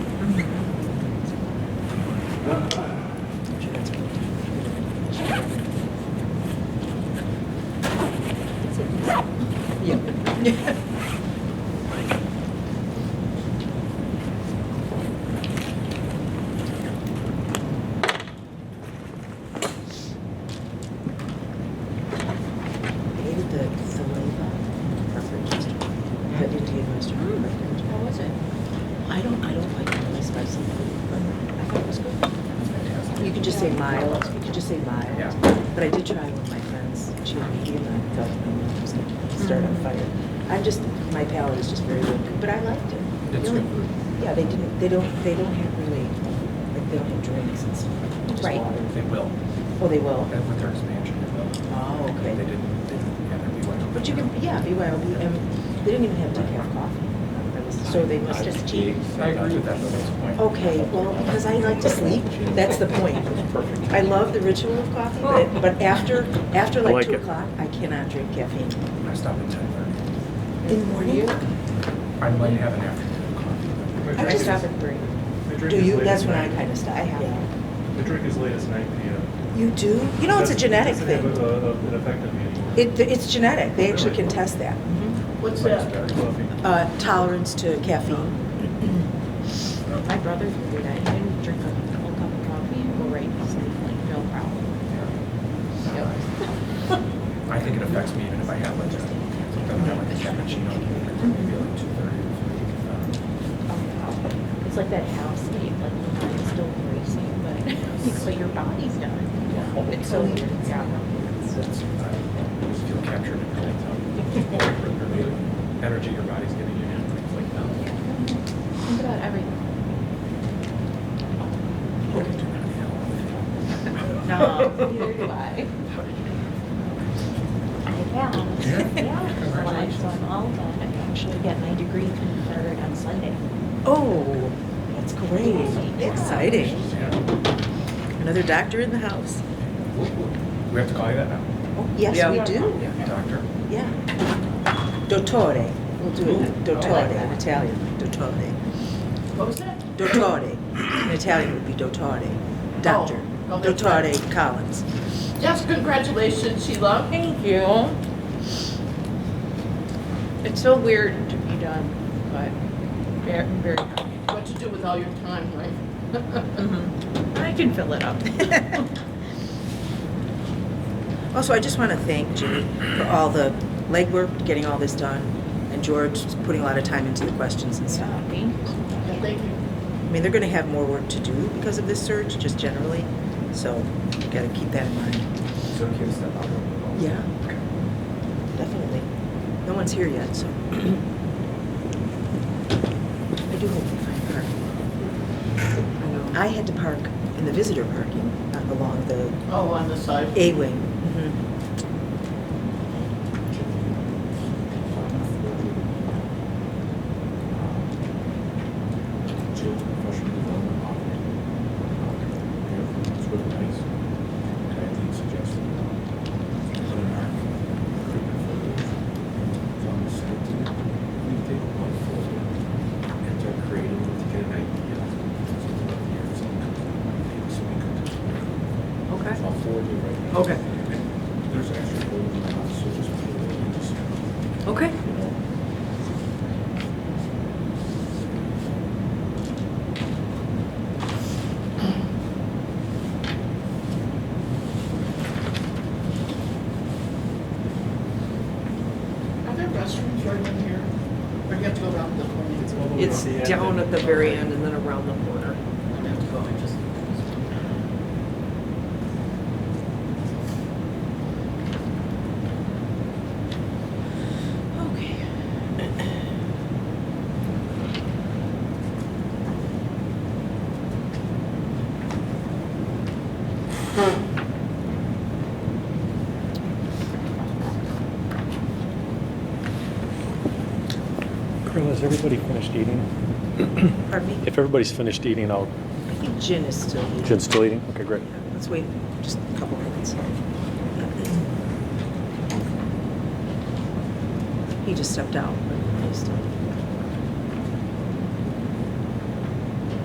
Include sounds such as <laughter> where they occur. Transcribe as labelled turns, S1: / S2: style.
S1: Maybe the, the labor preference restaurant, the Indian restaurant.
S2: Mm, How was it?
S1: I don't, I don't like really spicy food, but I thought it was good.
S3: Fantastic.
S1: You could just say mild, you could just say mild.
S3: Yeah.
S1: But I did try with my friends, she and he and I felt like it was gonna start
S2: Mm.
S1: on fire. I'm just, my palate is just very weak, but I liked it.
S3: That's
S1: The only-
S3: good.
S1: Yeah, they didn't, they don't, they don't have really, like, they don't have drinks and stuff, just
S2: Right.
S1: water.
S3: They will,
S1: Oh, they will?
S3: And with their expansion, they will.
S1: Oh,
S3: They
S1: okay.
S3: didn't, they didn't have to be like.
S1: But you can, yeah, BYOB, and they didn't even have decaf coffee. So they must
S2: Just
S1: have,
S2: cheap.
S3: I agree with that, though, that's the point.
S1: okay, well, because I like to sleep, that's the point.
S3: Perfect.
S1: I love the ritual of coffee,
S4: Oh.
S1: but, but after, after
S5: I like
S1: like two
S5: it.
S1: o'clock, I cannot drink caffeine.
S3: I stop at ten thirty.
S1: In the morning?
S3: I might have an afternoon coffee.
S1: I just stop at three.
S4: The drink
S1: Do
S4: is
S1: you,
S4: late
S1: that's
S4: as
S1: when I
S4: night.
S1: kind of stop, I have.
S4: The drink is late as 9 p.m.
S1: You do? You know, it's a
S4: Doesn't-
S1: genetic
S4: doesn't have
S1: thing.
S4: a- a- An effect on me anymore.
S1: It, it's genetic, they actually
S4: Really?
S1: can test that.
S2: What's
S3: Like
S2: that?
S3: it's better.
S4: Coffee.
S1: Uh, tolerance to caffeine.
S2: My brother would do that. He didn't drink a whole cup of coffee and go right to sleep, like, no problem.
S3: Yeah. <laughs> I think it affects me even if I have like a, sometimes I have like a cappuccino, maybe like two Um, thirty.
S2: It's like that house sleep, like the mind's still racing, but, <laughs> but your body's done. It's so weird, yeah.
S3: I just feel captured in real
S1: <laughs>
S3: time. Energy your body's giving you, and it's like, no.
S2: Think about everything. No, <laughs> neither do I. I have,
S3: Yeah?
S2: yeah. When I
S3: Congratulations.
S2: was on all that, I actually get my degree conferred on Sunday.
S1: Oh, that's great,
S2: Yeah.
S1: exciting.
S3: Yeah.
S1: Another doctor in the house.
S3: We have to call you that now?
S1: Oh, yes, we do.
S3: Yeah. Doctor?
S1: Yeah. Dottore. We'll do it.
S3: Ooh, I like
S1: Dottore in
S3: that.
S1: Italian. Dottore.
S2: What was that?
S1: Dottore. In Italian would be dottore. Doctor.
S6: Oh, okay.
S1: Dottore Collins.
S6: Yes, congratulations, Sheila.
S2: Thank you. It's so weird to be done, but very, very happy.
S6: What you do with all your time, right? <laughs>
S2: I can fill it up. <laughs>
S1: Also, I just want to thank Jimmy for all the legwork, getting all this done, and George putting a lot of time into the questions and stuff.
S6: Well, Thank you.
S1: I mean, they're going to have more work to do because of this surge, just generally, so you got to keep that in mind.
S3: So can you step up?
S1: Yeah. Definitely. No one's here yet, so. <clears throat> I do hope we find parking. I know. I had to park in the visitor parking uh, along the
S6: Oh, on the side.
S1: A wing.
S7: Jill, professional development office. It's really nice, and I think suggested, um, put an arc, recruitment photos, on the site, we take one photo, and start creating it to get an idea. So, yeah, so we could- so we could just-
S8: Mm-hmm.
S1: Okay.
S7: I'll forward it right now.
S1: Okay.
S7: There's extra photos in the house, so just put it in, just, you
S1: Okay.
S7: know,
S6: Are there restrooms right in here? Or do you have to go around the corner? It's over.
S8: It's down at the very end and then around the corner.
S6: I have to go, I just.
S1: Okay.
S5: Carl, has everybody finished eating?
S1: Pardon me?
S5: If everybody's finished eating, I'll,
S1: I think Jin is still here.
S5: Jen's still eating? Okay, great.
S1: Let's wait just a couple minutes. He just stepped out, but he's still.